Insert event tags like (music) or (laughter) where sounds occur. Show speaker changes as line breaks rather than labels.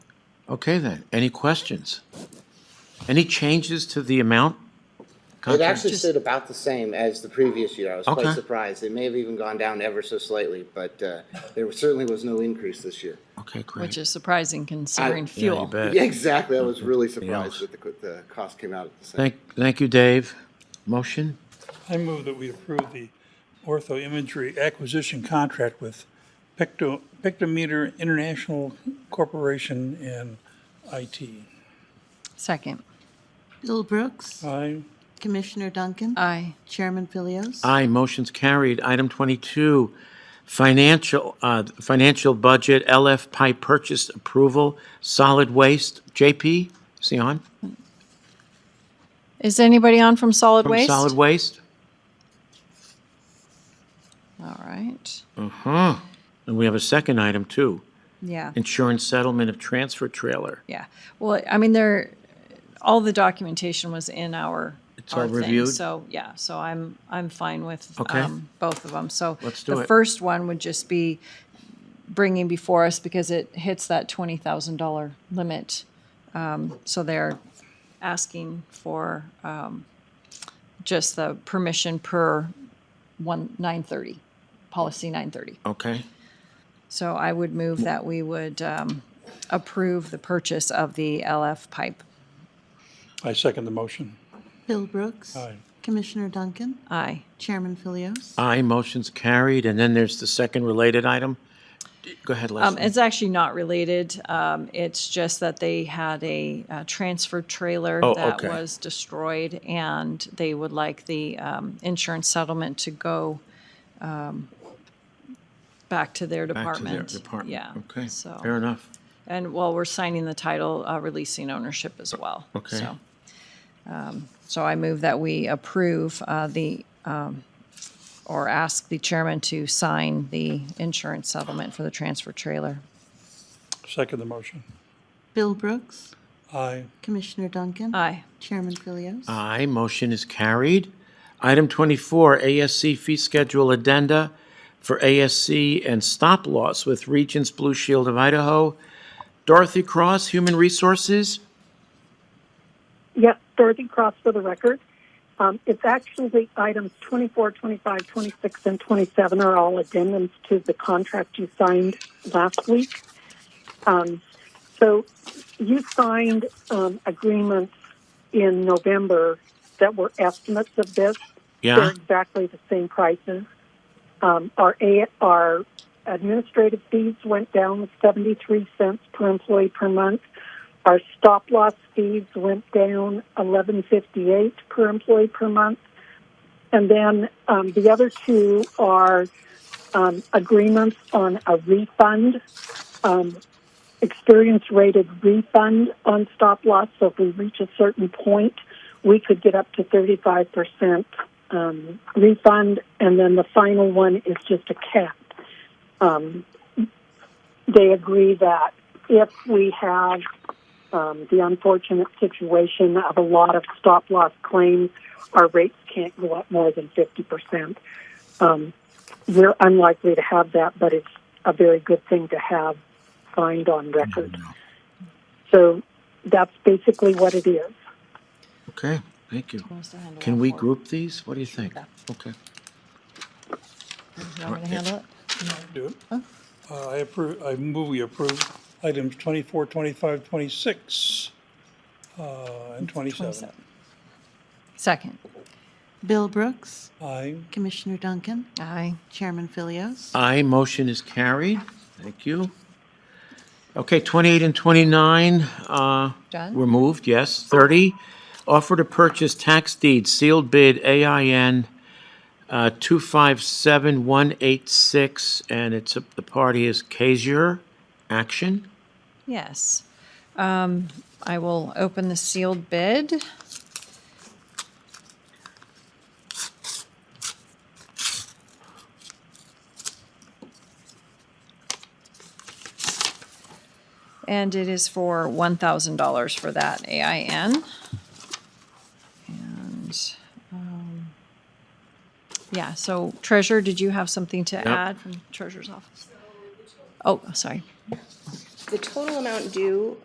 Okay then, any questions? Any changes to the amount?
It
Contract?
actually stood about the same as the previous year. I was
Okay.
quite surprised. It may have even gone down ever so slightly, but uh, there certainly was no increase this year.
Okay,
which
great.
is surprising considering
Yeah, you
fuel.
bet.
Yeah, (laughs) exactly. I was really
else.
surprised that the, co- the cost came out at the same.
Thank, thank you, Dave. Motion?
I move that we approve the ortho imagery acquisition contract with Picto, Pictometer International Corporation and IT.
Second,
Bill Brooks.
Aye.
Commissioner Duncan.
aye.
Chairman Philios.
Aye, motion's carried. Item 22, financial, uh, financial budget, LF pipe purchase approval, solid waste. JP, is he on?
Is anybody on from solid
From
waste?
Solid waste?
All right.
Huh. And we have a second item, too.
Yeah.
Insurance settlement of transfer trailer.
Yeah. Well, I mean, there, all the documentation was in our.
It's all
our thing.
reviewed?
So, yeah, so I'm, I'm fine with.
Okay.
um, Both of them. So.
Let's do
The
it.
first one would just be bringing before us because it hits that twenty thousand dollar limit. Um, So they're asking for um, just the permission per one, nine thirty, policy nine thirty.
Okay,
So I would move that we would um, approve the purchase of the LF pipe.
I second the motion.
Bill Brooks.
Aye.
Commissioner Duncan.
Aye.
Chairman Philios.
aye, motion's carried. And then there's the second related item. Go ahead,
Um,
Leslie.
It's actually not related. Um, It's just that they had a uh, transfer trailer
Oh,
that
okay.
was destroyed, and they would like the um, insurance settlement to go um, back to their
Back to
department.
their department.
Yeah.
Okay, fair
So,
enough.
and while we're signing the title, uh, releasing ownership as well.
Okay.
So, um, So I move that we approve uh, the, um, or ask the chairman to sign the insurance settlement for the transfer trailer.
Second the motion.
Bill Brooks.
Aye.
Commissioner Duncan.
Aye.
Chairman Philios.
Aye, motion is carried. Item 24, ASC fee schedule addenda for ASC and stop loss with Regents Blue Shield of Idaho. Dorothy Cross, Human Resources.
Yes, Dorothy Cross for the record. Um, it's actually items 24, 25, 26, and 27 are all addendums to the contract you signed last week. Um, so you signed um, agreements in November that were estimates of this. They're
Yeah,
exactly the same prices. Um, our, A- our administrative fees went down 73 cents per employee per month. Our stop loss fees went down 11.58 per employee per month. And then um, the other two are um, agreements on a refund, um, experience rated refund on stop loss. So if we reach a certain point, we could get up to 35% um, refund. And then the final one is just a cap. Um, they agree that if we have um, the unfortunate situation of a lot of stop loss claims, our rates can't go up more than 50%. Um, we're unlikely to have that, but it's a very good thing to have signed on record. So that's basically what it is.
okay, thank you.
Wants to handle
Can
all
we
four.
group these? What do you think?
Yeah.
Okay,
You want me to handle it?
Do it. Uh, I approve, I move we approve items 24, 25, 26, uh, and 27.
27. Second.
Bill Brooks.
Aye.
Commissioner Duncan.
Aye.
Chairman Philios.
aye, motion is carried. Thank you. Okay, 28 and 29, uh,
Done?
Were moved, yes. 30, offer to purchase tax deed sealed bid AIN uh, 257186, and it's, the party is Kazier Action.
Yes. Um, I will open the sealed bid. And it is for one thousand dollars for that AIN. And, um, yeah, so Treasurer, did you have something to add from Treasurer's office? Oh, sorry.
The total amount due